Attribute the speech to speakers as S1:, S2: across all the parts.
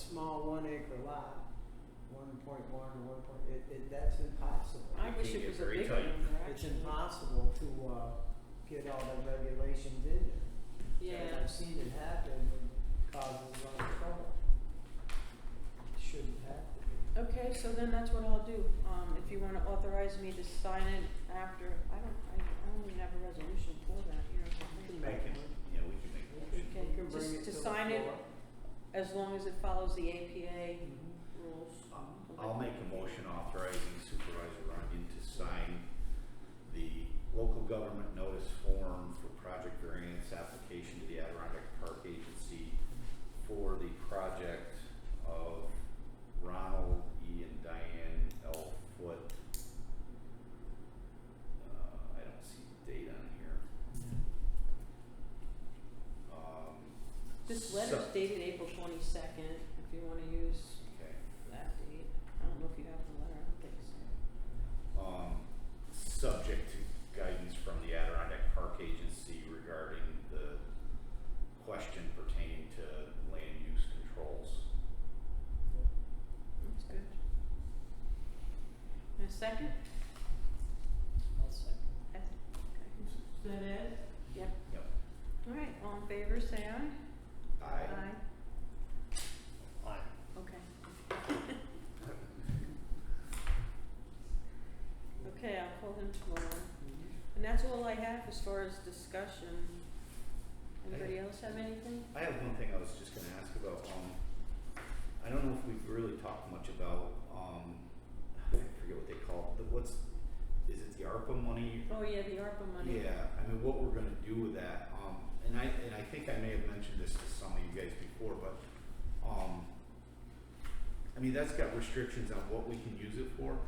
S1: small one acre lot, one point one or one point, it, it, that's impossible.
S2: I
S3: You
S2: wish
S3: can
S2: it
S3: get
S2: was a
S3: very
S2: bigger
S3: tight.
S2: number,
S1: It's
S2: actually.
S1: impossible to, uh, get all the regulations in there. And
S2: Yeah,
S1: I've seen it happen, it causes a lot of trouble. Shouldn't have to be.
S2: okay, so then that's what I'll do, um, if you wanna authorize me to sign it after, I don't, I, I don't even have a resolution for that here. I don't think.
S3: I can, yeah, we can make a motion.
S2: Okay,
S1: You can bring it
S2: just to
S1: the
S2: sign it.
S1: floor.
S2: As long as it follows the APA
S1: Mhm.
S2: rules.
S3: Um, I'll make a motion authorizing Supervisor Runyon to sign the local government notice form for project variance application to the Adirondack Park Agency for the project of Ronald E. and Diane L. Foot. Uh, I don't see the date on here. Um,
S2: This letter's
S3: so-
S2: dated April twenty-second, if you wanna use
S3: Okay.
S2: that date, I don't know if you have the letter, I don't think so.
S3: um, subject to guidance from the Adirondack Park Agency regarding the question pertaining to land use controls.
S2: That's good. And a second?
S1: I'll second.
S2: Ed? Okay.
S1: Is that it?
S2: Yep.
S3: Yep.
S2: Alright, all in favor, say aye.
S3: I,
S4: Aye.
S2: Okay. Okay, I'll call them tomorrow. And that's all I have as far as discussion. Anybody else have anything?
S3: I have one thing I was just gonna ask about, um, I don't know if we've really talked much about, um, I forget what they call it, the, what's, is it the ARPA money
S2: Oh, yeah, the ARPA money.
S3: Yeah, I mean, what we're gonna do with that, um, and I, and I think I may have mentioned this to some of you guys before, but, um, I mean, that's got restrictions on what we can use it for,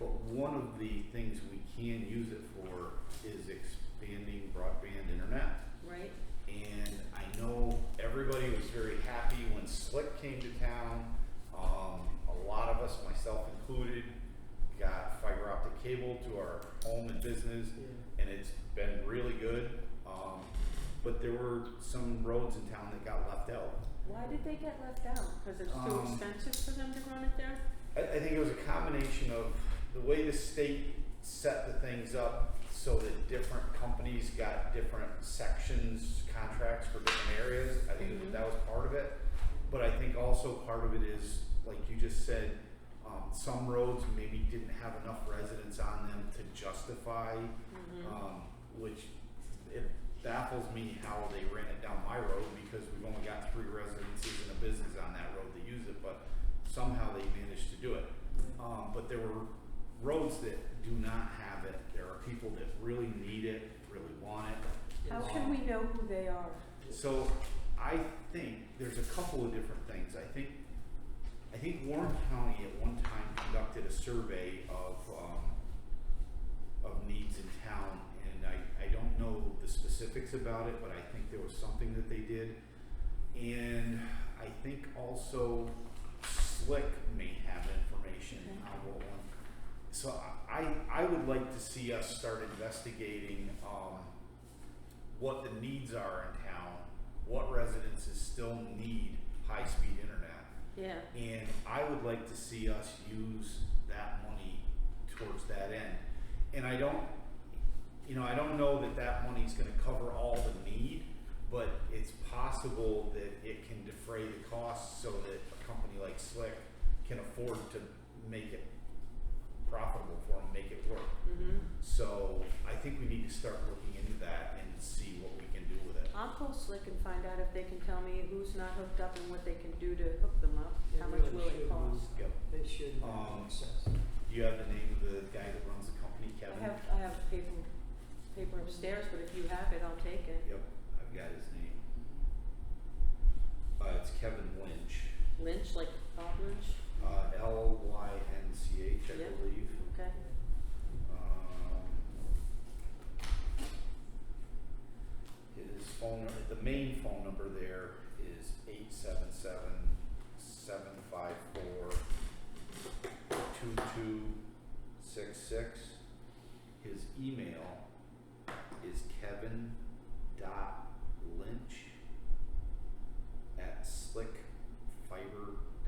S3: but one of the things we can use it for is expanding broadband internet.
S2: Right?
S3: And I know everybody was very happy when Slick came to town. Um, a lot of us, myself included, got fiber optic cable to our home and business
S1: Yeah.
S3: and it's been really good. Um, but there were some roads in town that got left out.
S2: Why did they get left out? Because it's too
S3: Um,
S2: expensive for them to run it there?
S3: I, I think it was a combination of the way the state set the things up so that different companies got different sections, contracts for different areas. I think
S2: Mhm.
S3: that was part of it. But I think also part of it is, like you just said, um, some roads maybe didn't have enough residents on them to justify
S2: Mm-hmm.
S3: um, which it baffles me how they ran it down my road because we've only got three residences and a business on that road that use it, but somehow they managed to do it. Um, but there were roads that do not have it. There are people that really need it, really want it.
S2: How can we know who they are?
S3: So I think there's a couple of different things. I think I think Warren County at one time conducted a survey of, um, of needs in town, and I, I don't know the specifics about it, but I think there was something that they did. And I think also Slick may have information on what one. So I, I would like to see us start investigating, um, what the needs are in town, what residences still need high-speed internet.
S2: Yeah.
S3: And I would like to see us use that money towards that end. And I don't, you know, I don't know that that money's gonna cover all the need, but it's possible that it can defray the costs so that a company like Slick can afford to make it profitable for them, make it work.
S2: Mm-hmm.
S3: So I think we need to start looking into that and see what we can do with it.
S2: I'll call Slick and find out if they can tell me who's not hooked up and what they can do to hook them up.
S1: They
S2: How much
S1: really
S2: will it
S1: should
S2: cost?
S3: Yep.
S1: It should
S3: Um,
S1: be accessible.
S3: Do you have the name of the guy that runs the company, Kevin?
S2: I have, I have paper, paper upstairs, but if you have it, I'll take it.
S3: Yep, I've got his name. Uh, it's Kevin Lynch. Uh,
S2: Lynch, like
S3: Um,